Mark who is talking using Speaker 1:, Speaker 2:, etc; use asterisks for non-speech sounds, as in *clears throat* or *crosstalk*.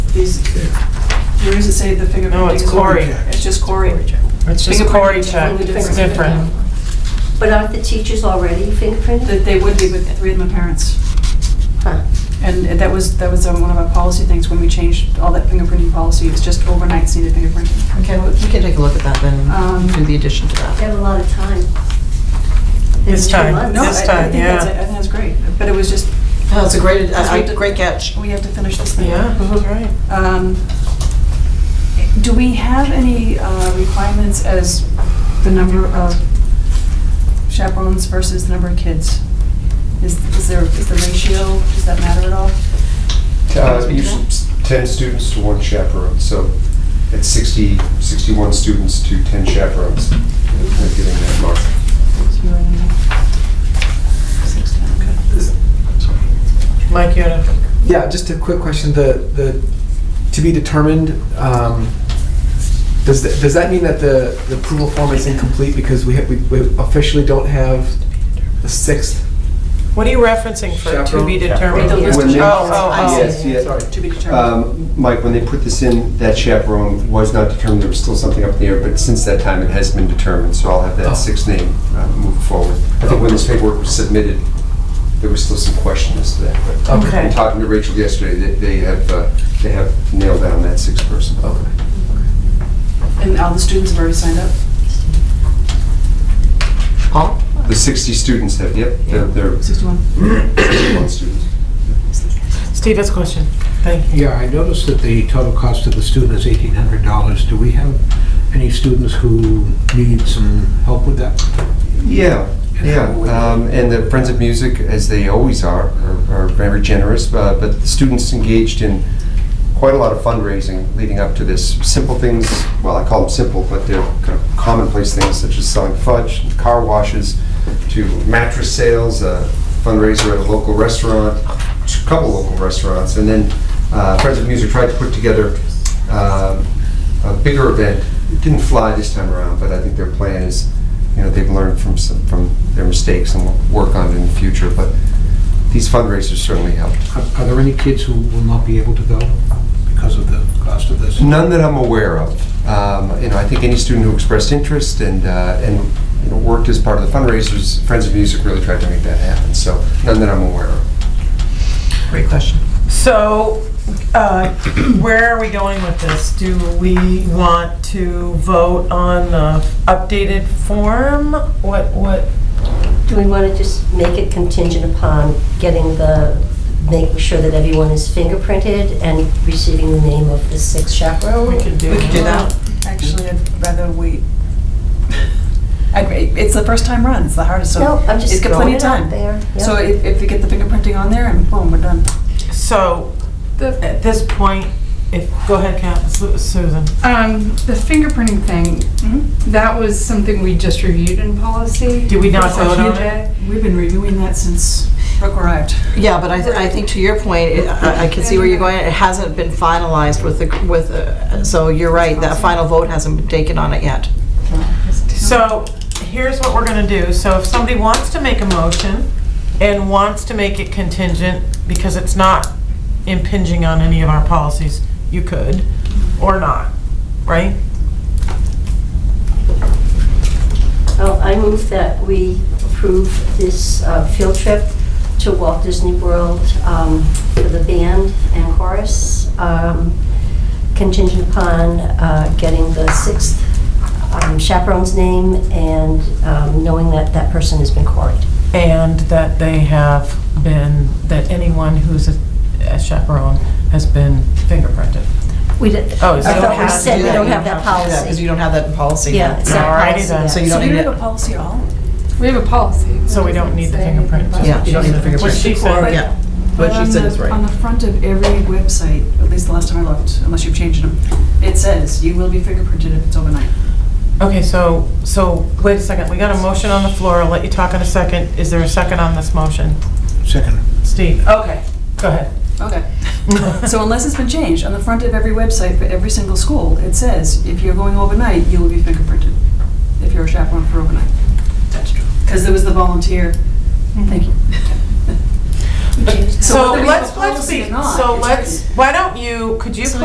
Speaker 1: Is, where does it say the fingerprint?
Speaker 2: No, it's
Speaker 1: is-
Speaker 2: Cory.
Speaker 1: It's just Cory.
Speaker 2: It's just
Speaker 1: Fingerprint
Speaker 2: Cory
Speaker 1: is
Speaker 2: check,
Speaker 1: totally
Speaker 2: it's different.
Speaker 3: But aren't the teachers already fingerprinted?
Speaker 1: That they would be with the three of them are parents.
Speaker 3: Huh.
Speaker 1: And that was, that was um, one of our policy things when we changed all that fingerprinting policy, it's just overnight needed fingerprinting.
Speaker 4: Okay, well, we can take a look at that then,
Speaker 1: Um,
Speaker 4: and do the addition to
Speaker 3: They
Speaker 4: that.
Speaker 3: have a lot of time.
Speaker 2: This
Speaker 3: Two
Speaker 2: time,
Speaker 3: months.
Speaker 1: No, I-
Speaker 2: This time,
Speaker 1: I think that's,
Speaker 2: yeah.
Speaker 1: I think that's great, but it was just,
Speaker 4: No, Oh, it's a great,
Speaker 1: Because we
Speaker 4: a- a
Speaker 1: did-
Speaker 4: great catch.
Speaker 1: we have to finish this thing.
Speaker 2: Yeah, that's right.
Speaker 1: Um, Do we have any uh, requirements as the number of chaperones versus the number of kids? Is is there, is the ratio, does that matter at all?
Speaker 5: Uh, usually s- 10 students to one chaperone, so it's 60, 61 students to 10 chaperones. They're getting that mark.
Speaker 1: So you're in the- Six, okay.
Speaker 2: Mike, you had a,
Speaker 6: Yeah, just a quick question, the, the, to be determined, um, does, th- does that mean that the the approval form is incomplete because we ha- we we officially don't have the sixth?
Speaker 2: what are you referencing for to be
Speaker 6: Chaperone?
Speaker 2: determined?
Speaker 1: Chaperone.
Speaker 2: Oh,
Speaker 1: When they-
Speaker 2: oh,
Speaker 5: Yes,
Speaker 2: oh.
Speaker 5: yeah.
Speaker 1: To be determined.
Speaker 5: Um, Mike, when they put this in, that chaperone was not determined, there was still something up in the air, but since that time, it has been determined, so I'll have
Speaker 6: Oh.
Speaker 5: that sixth name uh, move forward. I think when this paperwork was submitted, there was still some question as to that, but
Speaker 2: Okay.
Speaker 5: in talking to Rachel yesterday, they- they have, uh, they have nailed down that sixth person.
Speaker 6: Okay.
Speaker 1: And all the students have already signed up?
Speaker 4: Paul?
Speaker 5: The 60 students have, yep, they're- they're
Speaker 1: 61?
Speaker 5: 61 students.
Speaker 2: Steve has a question. Thank you.
Speaker 7: Yeah, I noticed that the total cost to the student is eighteen hundred dollars. Do we have any students who need some help with that?
Speaker 5: Yeah, yeah, um, and the Friends of Music, as they always are, are are very generous, uh, but the students engaged in quite a lot of fundraising leading up to this. Simple things, well, I call them simple, but they're kind of commonplace things such as selling fudge, car washes, to mattress sales, a fundraiser at a local restaurant, a couple local restaurants, and then uh, Friends of Music tried to put together um, a bigger event. It didn't fly this time around, but I think their plan is, you know, they've learned from some, from their mistakes and will work on it in the future, but these fundraisers certainly helped.
Speaker 7: Are are there any kids who will not be able to go because of the cost of this?
Speaker 5: None that I'm aware of. Um, You know, I think any student who expressed interest and, uh, and, you know, worked as part of the fundraisers, Friends of Music really tried to make that happen, so none that I'm aware of.
Speaker 4: Great question.
Speaker 2: So, uh, *clears throat* where are we going with this? Do we want to vote on the updated form? What, what?
Speaker 3: Do we want to just make it contingent upon getting the, making sure that everyone is fingerprinted and receiving the name of the sixth chaperone?
Speaker 4: We could do that.
Speaker 1: Actually, I'd rather wait. *laughs* I'd- It's the first time run, it's the hardest, so.
Speaker 3: No, I'm just
Speaker 1: It's got plenty of
Speaker 3: throwing it
Speaker 1: time.
Speaker 3: out there.
Speaker 1: So
Speaker 3: Yeah.
Speaker 1: if, if we get the fingerprinting on there and boom, we're done.
Speaker 2: So, at this point, if, go ahead, Cap, Su- Susan.
Speaker 8: Um, the fingerprinting
Speaker 1: Mm-hmm.
Speaker 8: thing, that was something we just reviewed in policy.
Speaker 2: Did we not
Speaker 8: Session
Speaker 2: vote on
Speaker 8: today.
Speaker 1: We've been reviewing that since Brooke arrived.
Speaker 4: Yeah, but I, th- I think to your point, it- I I can see where you're going, it hasn't been finalized with the, with, uh, so you're right, that final vote hasn't been taken on it yet.
Speaker 2: So, here's what we're gonna do. So if somebody wants to make a motion and wants to make it contingent, because it's not impinging on any of our policies, you could, or not, right?
Speaker 3: Oh, I move that we approve this uh, field trip to Walt Disney World um, for the band and chorus, um, contingent upon uh, getting the sixth um, chaperone's name and um, knowing that that person has been quarried.
Speaker 2: And that they have been, that anyone who's a a chaperone has been fingerprinted.
Speaker 3: We did,
Speaker 2: Oh,
Speaker 3: I
Speaker 2: so
Speaker 3: thought
Speaker 2: how do
Speaker 3: we said
Speaker 2: you
Speaker 3: we
Speaker 2: do
Speaker 3: don't
Speaker 2: that?
Speaker 3: have that
Speaker 4: Because
Speaker 3: policy.
Speaker 4: you don't have that in policy
Speaker 3: Yeah,
Speaker 4: yet.
Speaker 3: it's not
Speaker 2: Alrighty
Speaker 3: policy
Speaker 2: then,
Speaker 3: yet.
Speaker 4: So you
Speaker 1: So
Speaker 4: don't
Speaker 1: we
Speaker 4: need
Speaker 1: don't have
Speaker 4: it.
Speaker 1: a policy at all?
Speaker 8: We have a policy.
Speaker 2: So we don't need the fingerprint.
Speaker 4: Yeah, you don't need the
Speaker 2: What she
Speaker 4: fingerprint.
Speaker 2: said.
Speaker 4: Yeah, what
Speaker 1: But
Speaker 4: she
Speaker 1: on
Speaker 4: said
Speaker 1: the-
Speaker 4: is
Speaker 1: On
Speaker 4: right.
Speaker 1: the front of every website, at least the last time I looked, unless you've changed them, it says you will be fingerprinted if it's overnight.
Speaker 2: Okay, so, so, wait a second, we got a motion on the floor, I'll let you talk in a second. Is there a second on this motion?
Speaker 7: Second.
Speaker 2: Steve? Okay. Go ahead.
Speaker 1: Okay. So unless it's been changed, on the front of every website for every single school, it says if you're going overnight, you will be fingerprinted, if you're a chaperone for overnight. That's true. Because there was the volunteer, thank you.
Speaker 2: So
Speaker 1: whether we have a
Speaker 2: let's, let's
Speaker 1: policy
Speaker 2: be,
Speaker 1: or not,
Speaker 2: so
Speaker 1: it's
Speaker 2: let's, why don't you, could you
Speaker 1: So